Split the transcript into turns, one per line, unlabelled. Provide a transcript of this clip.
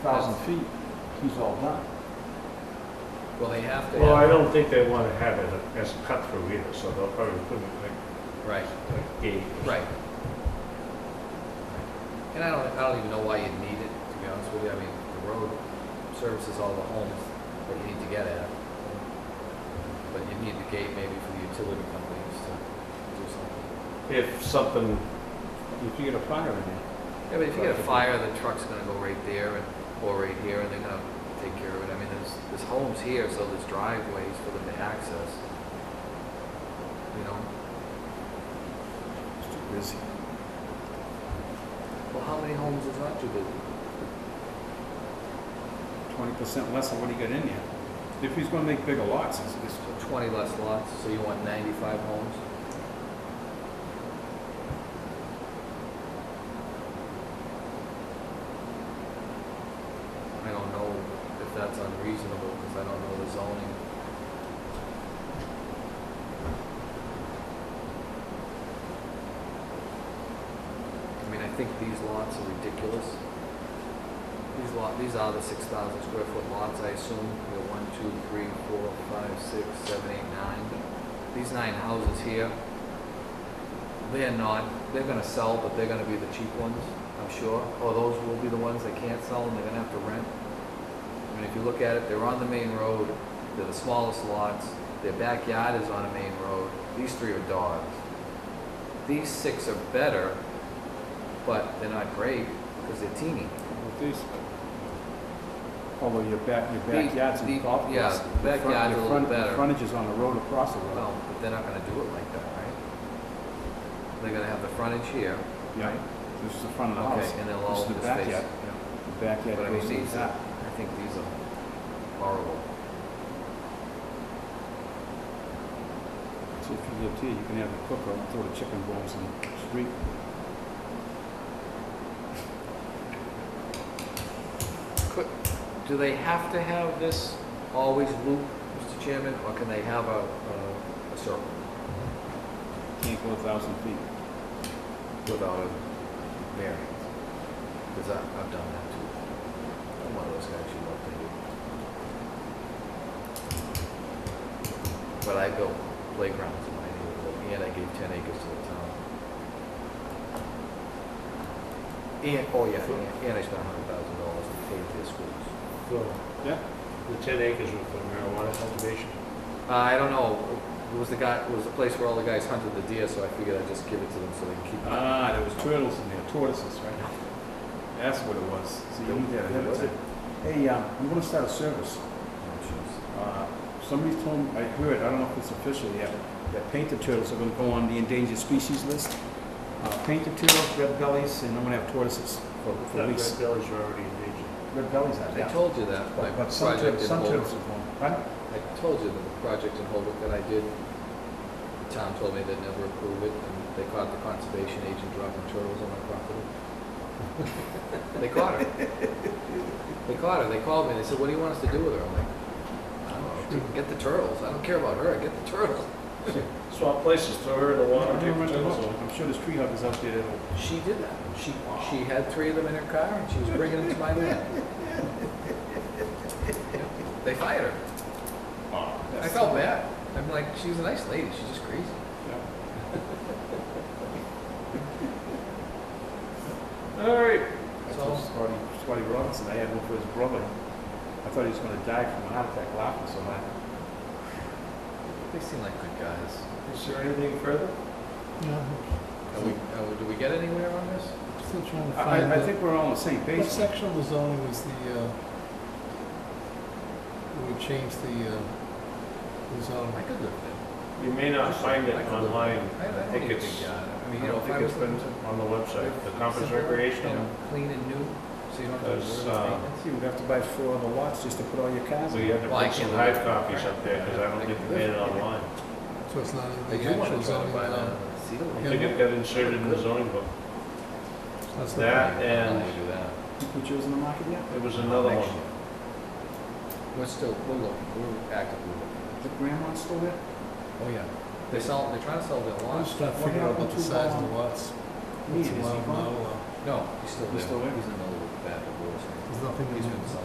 thousand feet, he's all done.
Well, they have to
Well, I
have,
don't think they want to have it as cut through either, so they'll probably put it like,
right,
like gate. or
right. And I don't, I don't even know why you'd need it, to be honest with you. I mean, the road services all the homes that you need to get at. But you need the gate maybe for the utility companies to do something.
something. If something, if you get a fire in there.
Yeah, but if you get a fire, the truck's gonna go right there and, or right here, and they're gonna take care of it. I mean, there's, there's homes here, so there's driveways for them to access. You know?
It's too busy.
Well, how many homes is not too busy?
twenty percent less than what he got in there. If he's gonna make bigger lots, it's, it's,
So 20 less lots, so you want 95 homes? I don't know if that's unreasonable, because I don't know the zoning. I mean, I think these lots are ridiculous. These lot, these are the six thousand square foot lots, I assume, they're one, two, three, four, five, six, seven, eight, nine. These nine houses here, they're not, they're gonna sell, but they're gonna be the cheap ones, I'm sure, or those will be the ones that can't sell and they're gonna have to rent. I mean, if you look at it, they're on the main road, they're the smallest lots, their backyard is on a main road, these three are dogs. These six are better, but they're not great, because they're teeny.
with these,
Although Oh, your back, your
The-
backyard's
the-
in golf course.
yeah,
your front- your
backyard's a little
front- your
better.
Frontage is on a road across the road.
No, but they're not gonna do it like that, right? They're gonna have the frontage here,
Yeah,
this is the front of the
okay,
house.
and they'll
This
all
is the
just face.
backyard.
yeah.
the backyard
But I
goes
mean,
to the
these are,
back.
I think these are horrible.
So if you lived here, you can have a cooker and throw the chicken bones in the street.
Could- Do they have to have this always loop, Mr. Chairman, or can they have a, a- a circle
Can't go a thousand feet.
without a variance? Because I, I've done that too. I'm one of those guys who love to do. But I built playgrounds in my neighborhood, and I gave ten acres to the town. And, oh yeah, and- and I spent a hundred thousand dollars to pave their schools.
So,
Yeah.
the ten acres were for marijuana cultivation.
Uh, I don't know. It was the guy. It was the place where all the guys hunted the deer, so I figured I'd just give it to them so they can keep. it.
Ah, there was turtles in there, tortoises, right? That's what it was. So you knew that ahead of
Was it?
time.
Hey, um, I'm gonna start a service.
Oh, jeez.
Uh, Somebody told me, I heard, I don't know if it's official yet, that painted turtles are gonna go on the endangered species list. Uh, Painted turtles, red bellies, and I'm gonna have tortoises for,
That
for
red
lease.
bellies were already endangered.
Red bellies are
I
down.
told you that. My
But but some
project
turtles,
in
some
Holbrook-
turtles are going. Pardon?
I told you that the project in Holbrook that I did. The town told me they'd never approve it, and they caught the conservation agent dropping turtles on my property. they caught her. They caught her. They called me. and They said, "What do you want us to do with her?" I'm like, "I don't know. Get the turtles. I don't care about her. Get the turtles."
Swap places, throw her in the water, take the turtles off.
I'm sure there's tree huggers out there that'll
She did that. She, she had three of them in her car and she was bringing them to my man. They fired her. Ah, I felt bad. I'm like, she was a nice lady. She's just crazy.
All right,
I told Scotty, Scotty Robinson, I had one for his brother. I thought he was gonna die from a heart attack laughing so hard.
They seem like good guys.
is there anything further?
Yeah,
Are we, are we- do we get anywhere on this?
I'm still trying to
I,
find
I- I
the,
think we're all on the same page.
what section of the zoning is the, uh, we changed the, uh, the
I
zoning?
could live there.
You may not find it
I could look.
online.
I- I don't
I think
even
it's,
think, uh, I
I
mean,
mean,
you
I
know,
don't
if
think
I
it's
was
been
to-
on the website, the
Simple,
Conference
you
Recreation.
know, Clean and new, so you don't have to
There's,
worry about
uh,
maintenance.
You would have to buy four other lots just to put all your cars
Oh,
We
in.
had to
Well, I
put some
can-
hard copies up there, because I don't think they made it online.
So it's not
I
in the
do want to try to
actual zoning
buy
now?
that cedar
I
one.
Yeah.
think it got inserted in the zoning book.
That's not-
That
I'll
and
do that.
You put yours in the market yet?
there was another
Next
one.
We're still, we're looking, we're actively looking.
The grandma's still there?
Oh, yeah. They sell, they're trying to sell their
I'm
lawn.
just trying to
What
figure out
happened
about the
to,
size of the
um,
lots.
Me,
What's
is he
allowed, not
gone?
allowed.
No, he's still
He's
there.
still there?
He's in the little bad divorce.
Is nothing in
He's
there.
been